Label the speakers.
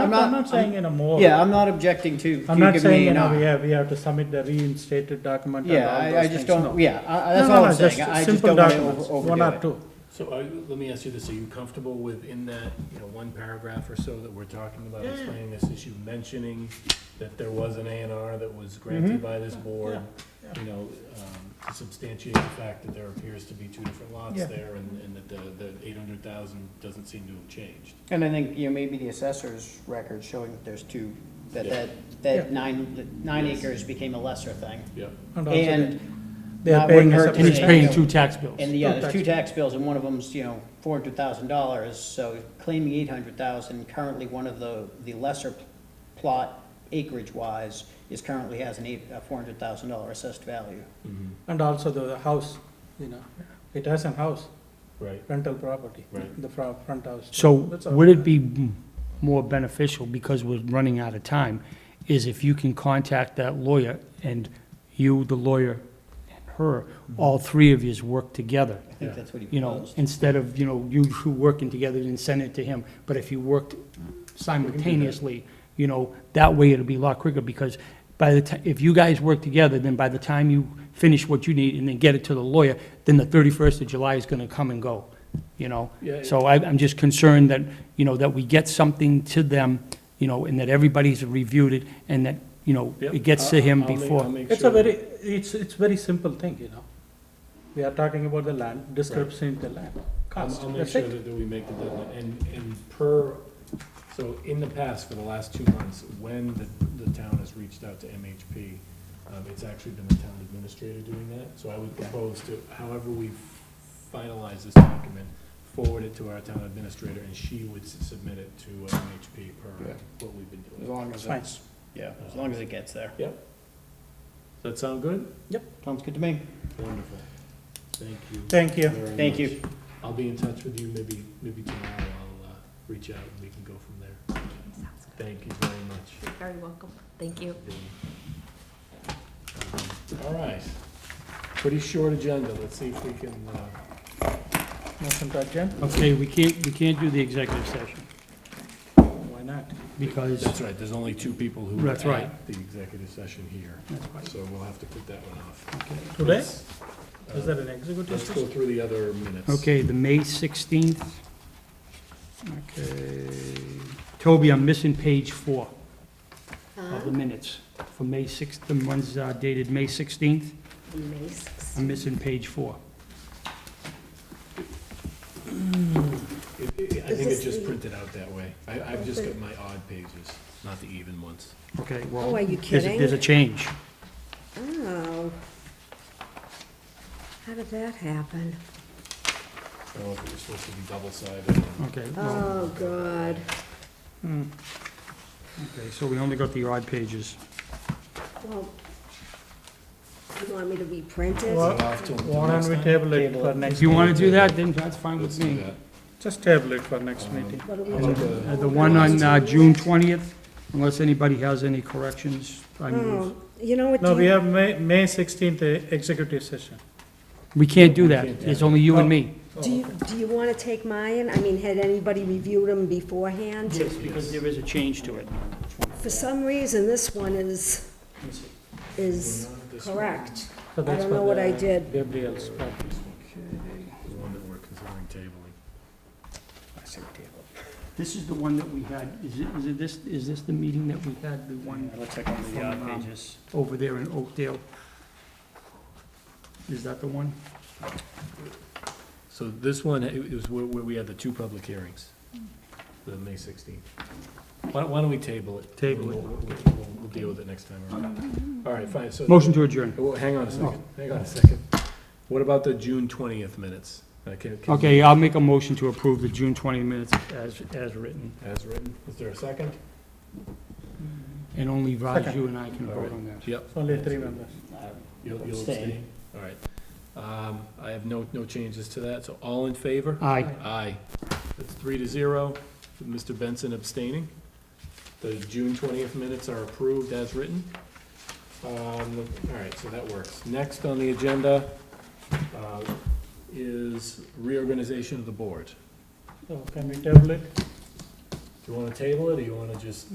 Speaker 1: not-
Speaker 2: I'm not saying in a more.
Speaker 1: Yeah, I'm not objecting to.
Speaker 2: I'm
Speaker 1: you
Speaker 2: not
Speaker 1: giving
Speaker 2: saying,
Speaker 1: me
Speaker 2: you
Speaker 1: an
Speaker 2: know,
Speaker 1: eye.
Speaker 2: we have, we have to submit the reinstated document and
Speaker 1: Yeah,
Speaker 2: all
Speaker 1: I, I
Speaker 2: those
Speaker 1: just
Speaker 2: things,
Speaker 1: don't,
Speaker 2: no.
Speaker 1: yeah, I- I-
Speaker 2: No,
Speaker 1: that's
Speaker 2: no,
Speaker 1: all
Speaker 2: no,
Speaker 1: I'm
Speaker 2: just
Speaker 1: saying, I just
Speaker 2: simple
Speaker 1: don't want to
Speaker 2: documents,
Speaker 1: overdo
Speaker 2: One or
Speaker 1: it.
Speaker 2: two.
Speaker 3: So are you- let me ask you this, are you comfortable with in that, you know, one paragraph or so that we're talking about explaining this issue, mentioning that there was an A and R that was
Speaker 2: Mm-hmm.
Speaker 3: granted by this board? You know, um, to substantiate the fact that there appears to be two different lots
Speaker 2: Yeah.
Speaker 3: there and, and that the, the eight hundred thousand doesn't seem to have changed.
Speaker 1: And I think, you know, maybe the assessor's record showing that there's two, that,
Speaker 3: Yeah.
Speaker 1: that,
Speaker 2: Yeah.
Speaker 1: that nine, that nine acres became a lesser thing.
Speaker 3: Yeah.
Speaker 2: also
Speaker 1: And,
Speaker 2: They are
Speaker 1: that
Speaker 2: paying
Speaker 1: wouldn't
Speaker 2: us
Speaker 1: hurt
Speaker 2: a
Speaker 1: to
Speaker 4: And he's
Speaker 1: say.
Speaker 2: percentage.
Speaker 4: paying two tax bills.
Speaker 1: and yeah,
Speaker 2: Two
Speaker 1: there's two tax bills, and one of them's, you know, four hundred thousand dollars, so claiming eight hundred thousand, currently one of the, the lesser plot acreage-wise is currently has an eight, a four hundred thousand dollar assessed value.
Speaker 3: Mm-hmm.
Speaker 2: And also the house, you know, it has a house,
Speaker 3: Right,
Speaker 2: rental property,
Speaker 3: Right.
Speaker 2: the fro- front house.
Speaker 4: So
Speaker 2: That's all.
Speaker 4: would it be m- more beneficial, because we're running out of time, is if you can contact that lawyer and you, the lawyer, and her, all three of yous work together?
Speaker 1: I think that's what he
Speaker 4: You know,
Speaker 1: proposed.
Speaker 4: instead of, you know, you two working together and send it to him, but if you worked simultaneously, you know, that way it'll be a lot quicker, because by the ti, if you guys work together, then by the time you finish what you need and then get it to the lawyer, then the thirty-first of July is gonna come and go, you know?
Speaker 3: Yeah.
Speaker 4: So I, I'm just concerned that, you know, that we get something to them, you know, and that everybody's reviewed it, and that, you know,
Speaker 3: Yep.
Speaker 4: it gets to
Speaker 3: I'll-
Speaker 4: him
Speaker 3: I'll make- I'll
Speaker 4: before.
Speaker 3: make
Speaker 2: It's
Speaker 3: sure
Speaker 2: a
Speaker 3: that-
Speaker 2: very, it's, it's very simple thing, you know. We are talking about the land, description of the land,
Speaker 3: I'll-
Speaker 2: cost,
Speaker 3: I'll make
Speaker 2: that's
Speaker 3: sure
Speaker 2: it.
Speaker 3: that that we make the deadline, and, and per, so in the past, for the last two months, when the, the town has reached out to MHP, um, it's actually been the town administrator doing that, so I would propose to, however we finalize this document, forward it to our town administrator, and she would s- submit it to uh, MHP per
Speaker 1: Yeah.
Speaker 3: what we've been
Speaker 1: As
Speaker 3: doing.
Speaker 1: long as
Speaker 2: Fine.
Speaker 1: it's, yeah, as long as it gets there.
Speaker 3: Yep. Does that sound good?
Speaker 1: Sounds good to me.
Speaker 3: Wonderful. Thank you.
Speaker 2: Thank you.
Speaker 3: very
Speaker 1: Thank
Speaker 3: much.
Speaker 1: you.
Speaker 3: I'll be in touch with you maybe, maybe tomorrow. I'll, uh, reach out and we can go from there.
Speaker 5: Sounds good.
Speaker 3: Thank you very much.
Speaker 5: You're very welcome. Thank you.
Speaker 3: Um, All right. Pretty short agenda. Let's see if we can, uh,
Speaker 2: Motion to adjourn,
Speaker 4: Okay, we can't, we can't do the executive session,
Speaker 2: why not?
Speaker 4: because.
Speaker 3: that's right, there's only two people who
Speaker 4: That's
Speaker 3: were
Speaker 4: right.
Speaker 3: at the executive session here. So we'll have to put that one off.
Speaker 2: Today,
Speaker 3: Let's, uh,
Speaker 2: is that an executive
Speaker 3: Let's go
Speaker 2: session?
Speaker 3: through the other minutes.
Speaker 4: Okay, the May 16th. Okay. Toby, I'm missing page four of the minutes for May 6th, the ones uh, dated May 16th.
Speaker 5: May 16th.
Speaker 4: I'm missing page four.
Speaker 3: It- it- I
Speaker 5: Is
Speaker 3: think
Speaker 5: this
Speaker 3: it just
Speaker 5: the-
Speaker 3: printed out that way. I, I've just got my odd pages, not the even ones.
Speaker 4: Okay, well.
Speaker 5: Oh, are you
Speaker 4: there's a-
Speaker 5: kidding?
Speaker 4: There's a change.
Speaker 5: Oh. How did that happen?
Speaker 3: I don't know if it was supposed to be double-sided.
Speaker 4: Okay, well,
Speaker 5: Oh, God.
Speaker 2: Hmm.
Speaker 5: Oh.
Speaker 4: okay, so we only got the odd pages.
Speaker 5: Well, you want me to be printed?
Speaker 2: Well,
Speaker 3: I'll have to-
Speaker 2: Why don't we table it
Speaker 1: Table
Speaker 2: for
Speaker 1: it.
Speaker 2: next,
Speaker 4: If you want to do that, then that's fine
Speaker 3: Let's
Speaker 4: with
Speaker 3: do
Speaker 4: me.
Speaker 3: that.
Speaker 2: just table it for next meeting.
Speaker 5: What do we
Speaker 3: How
Speaker 5: do?
Speaker 3: about the-
Speaker 4: Uh, The one on uh, June 20th, unless anybody has any corrections, I move.
Speaker 5: Oh, you know what?
Speaker 2: No,
Speaker 5: do
Speaker 2: we
Speaker 5: you-
Speaker 2: have May, May sixteenth executive session.
Speaker 4: We can't do
Speaker 3: We
Speaker 4: that.
Speaker 3: can't do
Speaker 4: It's
Speaker 3: that.
Speaker 4: only you
Speaker 5: Oh.
Speaker 4: and me.
Speaker 5: Do you, do you want to take mine? I mean, had anybody reviewed them beforehand?
Speaker 4: Yes, because there is a change to it.
Speaker 5: For some reason, this one is, is
Speaker 3: This one.
Speaker 5: correct.
Speaker 2: So
Speaker 5: I
Speaker 2: that's
Speaker 5: don't
Speaker 2: for
Speaker 5: know what I
Speaker 2: the
Speaker 5: did.
Speaker 2: Gabriel's part.
Speaker 3: The one that we're considering tabling.
Speaker 4: This is the one that we had, is it, is it this, is this the meeting that we had, the one
Speaker 1: It looks like one of the odd
Speaker 4: From, um,
Speaker 1: pages.
Speaker 4: over there in Oakdale? Is that the one?
Speaker 3: So this one, it it was where where we had the two public hearings, the May 16th. Why why don't we table it?
Speaker 4: Table it.
Speaker 3: We'll- We'll we'll- we'll deal with it next time around. All right, fine, so. Oh,
Speaker 4: Motion to Oh. adjourn.
Speaker 3: Well, hang on a second, hang on a second. What about the June 20th minutes? Uh, can- can-
Speaker 4: Okay, I'll make a motion to approve the June 20 minutes as, as written,
Speaker 3: As written, is there a second?
Speaker 4: and only Raj,
Speaker 2: Second.
Speaker 4: you and I can vote
Speaker 3: Alright.
Speaker 4: on that.
Speaker 3: Yep.
Speaker 2: Only three members.
Speaker 3: You'll you'll
Speaker 1: Abstain.
Speaker 3: abstain? All right. Um, I have no, no changes to that, so all in favor?
Speaker 4: Aye.
Speaker 3: Aye. That's three to zero, with Mr. Benson abstaining. The June twentieth minutes are approved as written. Um, all right, so that works. Next on the agenda, uh, is reorganization of the board.
Speaker 2: So can we table it?
Speaker 3: Do you wanna table it, or you wanna just